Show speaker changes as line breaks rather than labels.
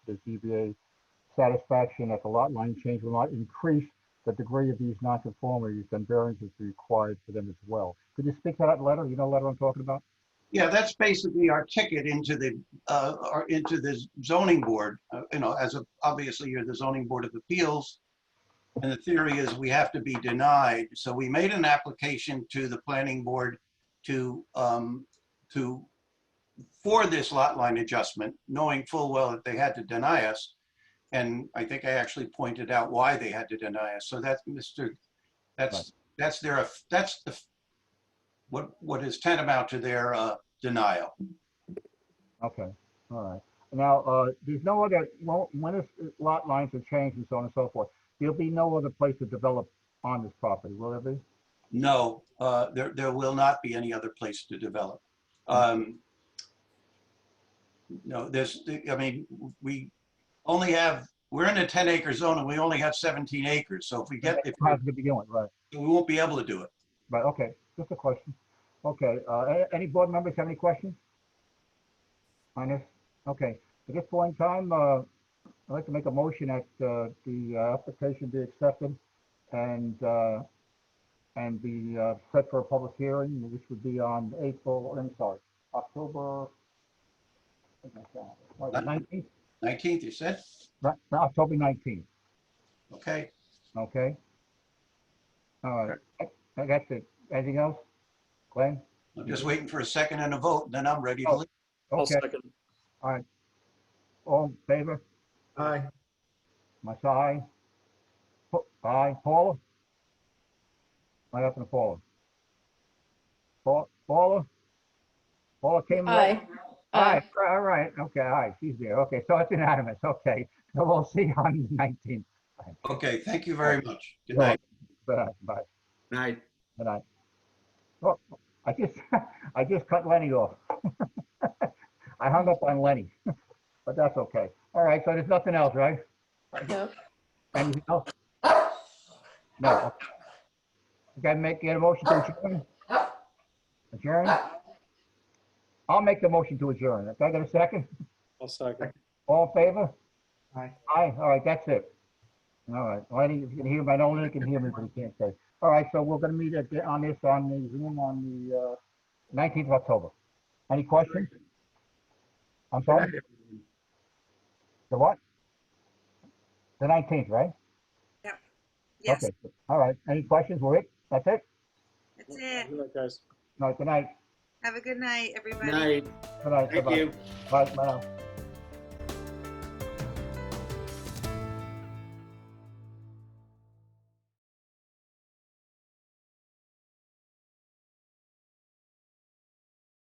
the ZBA satisfaction that the lot line change will not increase the degree of these nonconformities, then variance is required for them as well. Could you speak to that letter? You know the letter I'm talking about?
Yeah, that's basically our ticket into the, uh, or into the zoning board, uh, you know, as of, obviously, you're the zoning board of appeals. And the theory is we have to be denied, so we made an application to the planning board to, um, to, for this lot line adjustment, knowing full well that they had to deny us. And I think I actually pointed out why they had to deny us, so that's Mr., that's, that's their, that's the what, what is tantamount to their uh, denial.
Okay, all right. Now, uh, there's no other, well, when this lot lines are changed and so on and so forth, there'll be no other place to develop on this property, will there be?
No, uh, there, there will not be any other place to develop. Um, No, there's, I mean, we only have, we're in a 10 acre zone and we only have 17 acres. So if we get, if,
How's it to begin with, right?
we won't be able to do it.
Right, okay, just a question. Okay, uh, a- any board members have any questions? On this? Okay, at this point in time, uh, I'd like to make a motion that, uh, the uh, application be accepted and, uh, and be, uh, set for a public hearing, which would be on April, I'm sorry, October. uh, Nineteenth,
19th, you said?
right, no, October nineteenth,
Okay.
okay? All right, that- that's it. Anything else? Glenn?
I'm just waiting for a second and a vote and then I'm ready to
Oh.
leave.
I'll
Okay,
second.
all in favor?
Aye.
Myself, aye. Pa- Aye, Paula? What happened to Paula? Pa- Paula? Paula came late?
Aye.
Aye, all right, okay, aye, she's there, okay, so it's unanimous, okay. So we'll see you on the 19th,
Okay, thank you very much. Good
Well,
night.
bye, bye,
Aye.
good night. Oh, I just, I just cut Lenny off. I hung up on Lenny, but that's okay. All right, so there's nothing else, right?
No.
Anything else? No. You gotta make a motion to adjourn? Adjourn? I'll make the motion to adjourn. Can I get a second?
I'll second.
All in favor?
Aye.
Aye, all right, that's it. All right, Lenny, you can hear me, I know Lenny can hear me, but he can't say. All right, so we're gonna meet at- on this, on the Zoom on the uh, 19th of October. Any questions? I'm sorry, the what? The 19th, right?
Yes,
Okay. All right, any questions, we're it? That's it?
that's it.
Good night, guys.
No, good night.
Have a good night, everybody.
Night.
Good night.
Thank
Bye-bye.
you.
Bye, bye now.